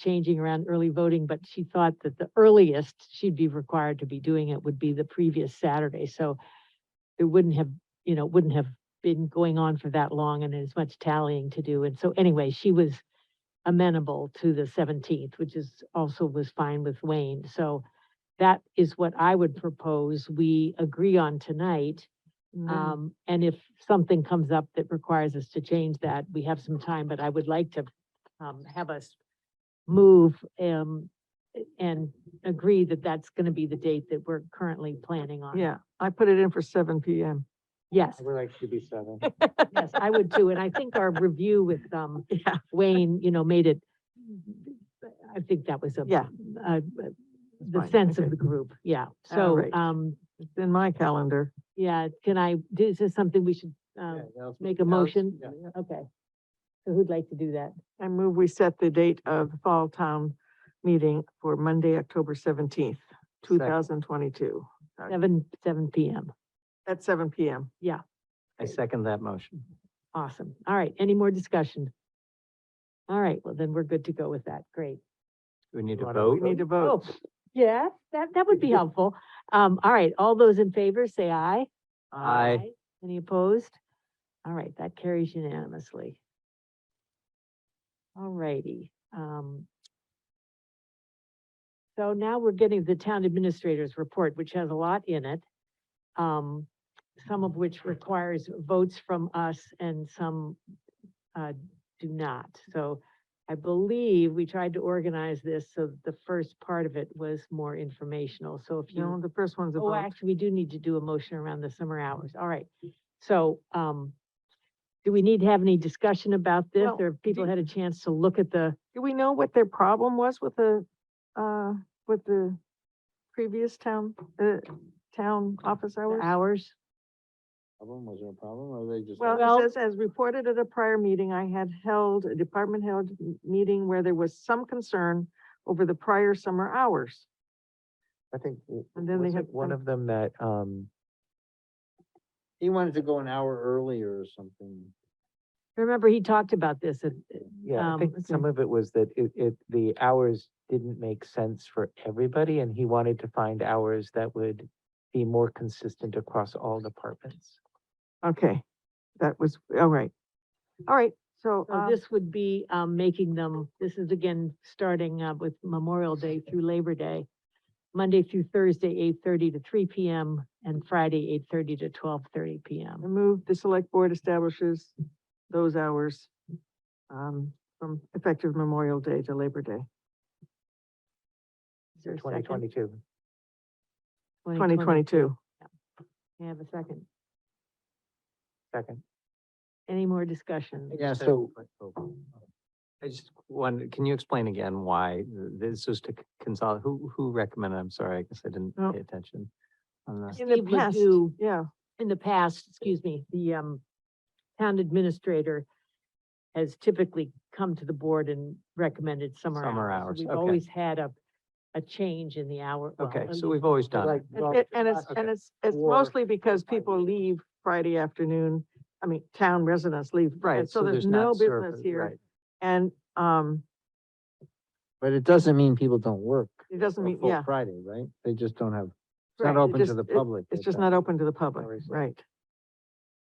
changing around early voting, but she thought that the earliest she'd be required to be doing it would be the previous Saturday, so it wouldn't have, you know, wouldn't have been going on for that long and as much tallying to do. And so anyway, she was amenable to the seventeenth, which is also was fine with Wayne. So that is what I would propose we agree on tonight. Mm. Um, and if something comes up that requires us to change that, we have some time, but I would like to, um, have us move, um, and agree that that's gonna be the date that we're currently planning Um, on. Yeah, I put it in for seven PM. Yes, We're like to be seven. yes, I would too. And I think our review with, um, Yeah. Wayne, you know, made it, I think that was a. Yeah. Uh, the fine, sense okay. of the group, yeah. All So, right. um, It's in my calendar. yeah, can I, is this something we should, Yeah, um, that was- make a that was- motion? yeah. Okay. So who'd like to do that? I move we set the date of the Fall Town Meeting for Monday, October seventeenth, two Second. thousand twenty-two. Seven, seven PM. At seven PM. I second that motion. Awesome. All right. Any more discussion? All right. Well, then we're good to go with that. Great. Do we need to Why don't vote? We need to Oh, vote. yeah, that, that would be helpful. Um, all right. All those in favor, say aye. Aye. Any opposed? All right, that carries unanimously. All righty, um. So now we're getting the town administrator's report, which has a lot in it. Um, some of which requires votes from us and some, uh, do not. So I believe we tried to organize this, so the first part of it was more informational. So if you. No, the first one's a Oh, vote. actually, we do need to do a motion around the summer hours. All right. So, um, do we need to have any discussion about this Well, or have people do- had a chance to look at the, Do we know what their problem was with the, uh, with the previous town, uh, town office the hours? hours? Problem, was there a problem, or they just? Well, it says, as reported at a prior meeting, I had held a department held m- meeting where there was some concern over the prior summer hours. I think, w- And then they was had it one some- of them that, um. He wanted to go an hour earlier or something. Remember, he talked about this and, Yeah, I Um, think some of it was that it, it, the hours didn't make sense for everybody, and he wanted to find hours that would be more consistent across all departments. Okay, that was, all right. All right, so, so uh, this would be, um, making them, this is again, starting, uh, with Memorial Day through Labor Day. Monday through Thursday, eight thirty to three P M and Friday, eight thirty to twelve thirty P I M. move the select board establishes those hours um, from effective Memorial Day to Labor Day, Is there a Twenty second? twenty-two. twenty twenty-two. May I have a second. Second. Any more discussion? Yeah, so. I just wonder, can you explain again why th- this was to consolidate, who, who recommended, I'm sorry, I guess I didn't Oh. pay attention. on that. In the Steve past, Ledoux yeah, in the past, excuse me, the um town administrator has typically come to the board and recommended summer hours. Summer So hours, We've okay. always had a, a change in the hour. well, Okay, at so least- we've always done, it. Like, and it- and it's, and okay. it's, it's Or mostly because Friday. people leave Friday afternoon, I mean, town residents leave. right, and So there's not no business service, here. right. And, um, But it doesn't mean people don't work. It doesn't a mean- full yeah. Friday, right? They just don't have, it's Correct. not It open to just- the it- public. it's at just that not time. open to the public, reason. right?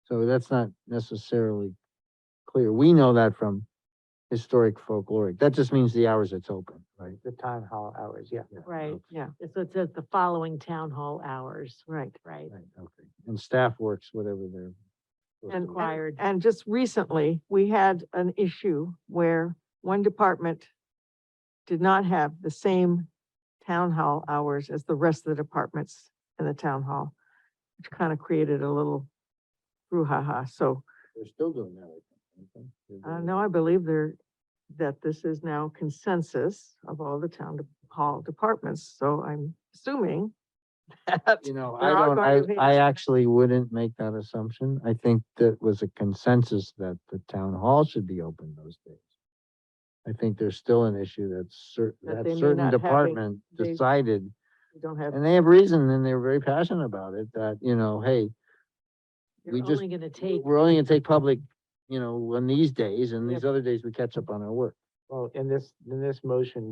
So that's not necessarily clear. We know that from historic folkloric. That just means the hours it's open, right? The town hall hours, yeah. Right, okay, Yeah, so it says the following town hall hours, right. right? Right, okay. And staff works whatever they're. supposed And, to work. Required. and, and just recently, we had an issue where one department did not have the same town hall hours as the rest of the departments in the town hall, which kind of created a little brouhaha. So, They're still doing that, I think. aren't they? uh, no, I believe there, that this is now consensus of all the town de- hall departments. So I'm assuming that You know, there I are don't, going to I, be- I actually wouldn't make that assumption. I think that was a consensus that the town hall should be open those days. I think there's still an issue that's cer- That that they may certain not having- department they- decided we don't have. And they have reason and they're very passionate about it, that, you know, hey, You're we just- only gonna take, we're only gonna take public, you know, on these days and Yep. these other days we catch up on our work. Well, in this, in this motion,